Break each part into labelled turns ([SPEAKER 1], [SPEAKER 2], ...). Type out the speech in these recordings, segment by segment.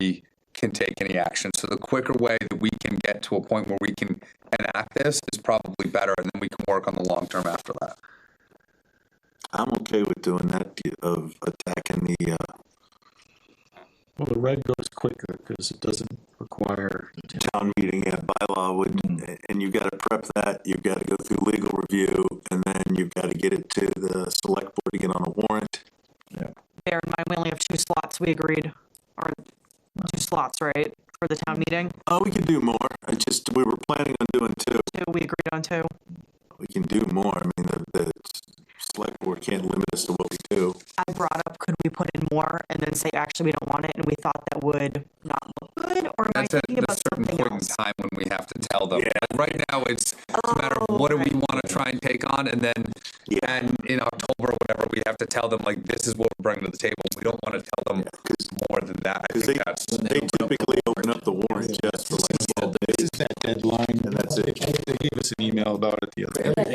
[SPEAKER 1] we can take any action. So the quicker way that we can get to a point where we can enact this is probably better, and then we can work on the long term after that.
[SPEAKER 2] I'm okay with doing that, of attacking the, uh,
[SPEAKER 3] Well, the red goes quicker because it doesn't require,
[SPEAKER 2] town meeting, yeah, bylaw would,
[SPEAKER 3] Hmm.
[SPEAKER 2] and you've gotta prep that, you've gotta go through legal review, and then you've gotta get it to the select board to get on a warrant.
[SPEAKER 4] Bear in mind, we only have two slots, we agreed, or two slots, right, for the town meeting,
[SPEAKER 2] Oh, we could do more, I just, we were planning on doing two,
[SPEAKER 4] two, we agreed on two.
[SPEAKER 2] we can do more, I mean, the, the select board can't limit us to what we do.
[SPEAKER 4] I brought up, could we put in more, and then say, actually, we don't want it, and we thought that would not look good, or am I
[SPEAKER 1] That's at
[SPEAKER 4] thinking
[SPEAKER 1] a
[SPEAKER 4] about
[SPEAKER 1] certain
[SPEAKER 4] something
[SPEAKER 1] point in
[SPEAKER 4] else?
[SPEAKER 1] time when we have to tell them.
[SPEAKER 2] Yeah.
[SPEAKER 1] Like, Right now, it's it's a matter
[SPEAKER 4] Oh,
[SPEAKER 1] of what do we want to try and take on, and then,
[SPEAKER 2] Yeah.
[SPEAKER 1] and in October, or whatever, we have to tell them, like, this is what we're bringing to the table. We don't want to tell them more than that. I
[SPEAKER 2] Cause they,
[SPEAKER 1] think that's,
[SPEAKER 2] they typically open up the warrant just for like twelve days.
[SPEAKER 3] this is that deadline. And
[SPEAKER 2] that's it.
[SPEAKER 3] They gave us an email about it the other day.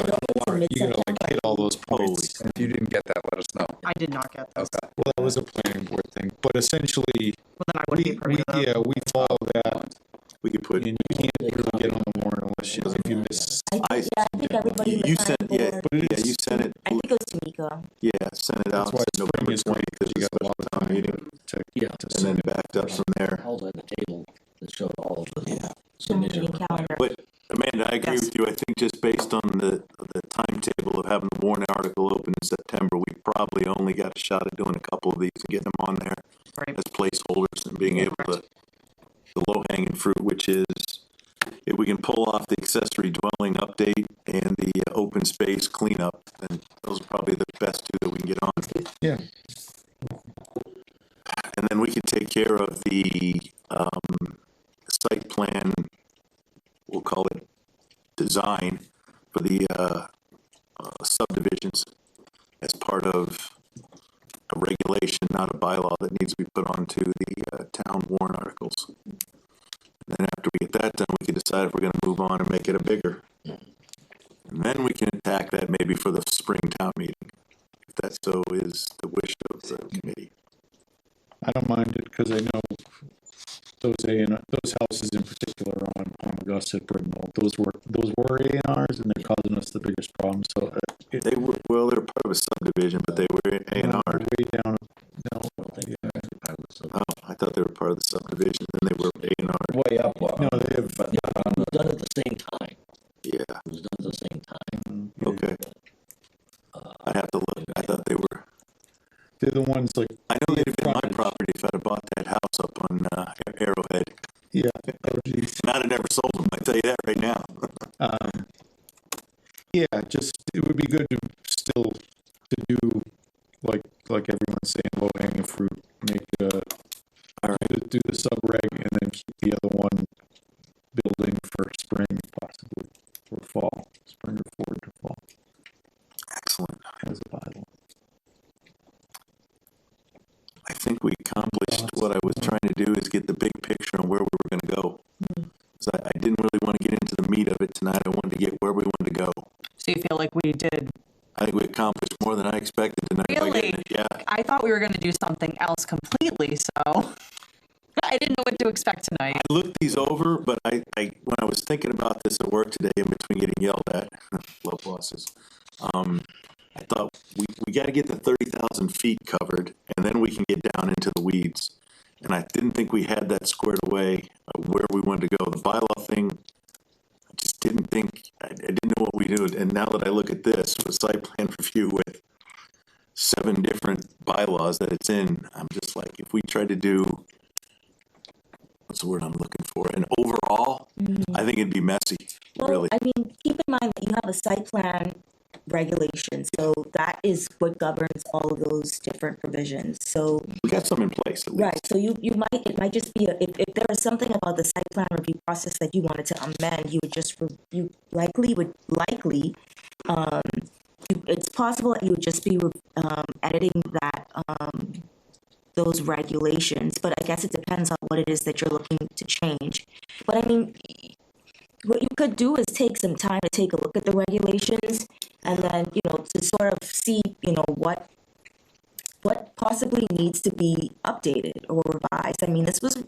[SPEAKER 3] You gotta like hit all those
[SPEAKER 2] Holy,
[SPEAKER 3] points.
[SPEAKER 1] if you didn't get that, let us know.
[SPEAKER 4] I did not get those,
[SPEAKER 1] Okay.
[SPEAKER 3] Well, that was a planning board thing, but essentially,
[SPEAKER 4] well, then I wouldn't be
[SPEAKER 3] we,
[SPEAKER 4] privy
[SPEAKER 3] we,
[SPEAKER 4] to that.
[SPEAKER 3] yeah, we follow that.
[SPEAKER 2] we could put,
[SPEAKER 3] And you can't really get on the warrant unless you, if you miss,
[SPEAKER 2] I,
[SPEAKER 5] Yeah, I think everybody
[SPEAKER 2] you
[SPEAKER 5] was
[SPEAKER 2] you
[SPEAKER 5] on
[SPEAKER 2] sent, yeah,
[SPEAKER 5] board.
[SPEAKER 2] yeah, you sent it,
[SPEAKER 5] I think it was D'Amico.
[SPEAKER 2] yeah, sent it out.
[SPEAKER 3] that's why
[SPEAKER 2] to
[SPEAKER 3] spring
[SPEAKER 2] November
[SPEAKER 3] is great
[SPEAKER 2] 20th,
[SPEAKER 3] because you got a lot of time
[SPEAKER 2] meeting.
[SPEAKER 3] to, to
[SPEAKER 6] Yeah.
[SPEAKER 2] and then
[SPEAKER 3] send it.
[SPEAKER 2] backed up from there.
[SPEAKER 6] All at the table that showed all of the
[SPEAKER 5] Town
[SPEAKER 6] submission.
[SPEAKER 5] meeting calendar.
[SPEAKER 2] But Amanda, I agree
[SPEAKER 4] Yes.
[SPEAKER 2] with you. I think just based on the, the timetable of having the warrant article open in September, we probably only got a shot at doing a couple of these and getting them on there
[SPEAKER 4] Right.
[SPEAKER 2] as placeholders and being able to, the low hanging fruit, which is if we can pull off the accessory dwelling update and the uh, open space cleanup, then those are probably the best two that we can get on.
[SPEAKER 3] Yeah,
[SPEAKER 2] And then we could take care of the, um, site plan, we'll call it design for the, uh, uh, subdivisions as part of a regulation, not a bylaw that needs to be put onto the, uh, town warrant articles. And then after we get that done, we can decide if we're gonna move on and make it a bigger. And then we can attack that maybe for the spring town meeting, if that so is the wish of the committee.
[SPEAKER 3] I don't mind it because I know those A and, those houses in particular on Palm Augusta, Brittenell, those were, those were A and Rs and they're causing us the biggest problem. So uh, it,
[SPEAKER 2] They were, well, they were part of a subdivision, but they were A and R.
[SPEAKER 3] Way down, no,
[SPEAKER 2] Oh, I thought they were part of the subdivision, then they were A and R,
[SPEAKER 6] Way up.
[SPEAKER 3] no, they have,
[SPEAKER 6] But it was done at the same time.
[SPEAKER 2] yeah,
[SPEAKER 6] It was done at the same time.
[SPEAKER 2] okay. I'd have to look, I thought they were,
[SPEAKER 3] they're the ones like,
[SPEAKER 2] I know they'd have been my property if I'd have bought that house up on, uh, Arrowhead.
[SPEAKER 3] yeah, allergies.
[SPEAKER 2] And I'd have never sold them, I tell you that right now.
[SPEAKER 3] Um, yeah, just, it would be good to still, to do, like, like everyone's saying, low hanging fruit, make a, do- do the subreg and then keep the other one building for spring possibly, or fall, spring or forward to fall
[SPEAKER 2] Excellent,
[SPEAKER 3] as a bylaw.
[SPEAKER 2] I think we accomplished what I was trying to do is get the big picture on where we were gonna go. 'Cause I, I didn't really wanna get into the meat of it tonight, I wanted to get where we wanted to go.
[SPEAKER 4] So you feel like we did,
[SPEAKER 2] I think we accomplished more than I expected tonight. by getting
[SPEAKER 4] Really?
[SPEAKER 2] it. Yeah.
[SPEAKER 4] I thought we were gonna do something else completely, so I didn't know what to expect tonight.
[SPEAKER 2] I looked these over, but I, I, when I was thinking about this at work today, in between getting yelled at, love bosses, um, I thought we, we got to get the thirty thousand feet covered, and then we can get down into the weeds. And I didn't think we had that squared away of where we wanted to go. The bylaw thing, I just didn't think I, I didn't know what we did. And now that I look at this with site plan review with seven different bylaws that it's in, I'm just like, if we try to do what's the word I'm looking for? And overall, I think it'd be messy,
[SPEAKER 5] Mm-hmm. Well,
[SPEAKER 2] really.
[SPEAKER 5] I mean, keep in mind that you have a site plan regulation, so that is what governs all of those different provisions. So,
[SPEAKER 2] we got some in place at least.
[SPEAKER 5] right, so you, you might, it might just be, a- if, if there was something about the site plan review process that you wanted to amend, you would just, re- you likely would, likely, um, you- it's possible that you would just be, re- um, editing that, um, those regulations, but I guess it depends on what it is that you're looking to change. But I mean, what you could do is take some time to take a look at the regulations and then, you know, to sort of see, you know, what what possibly needs to be updated or revised. I mean, this was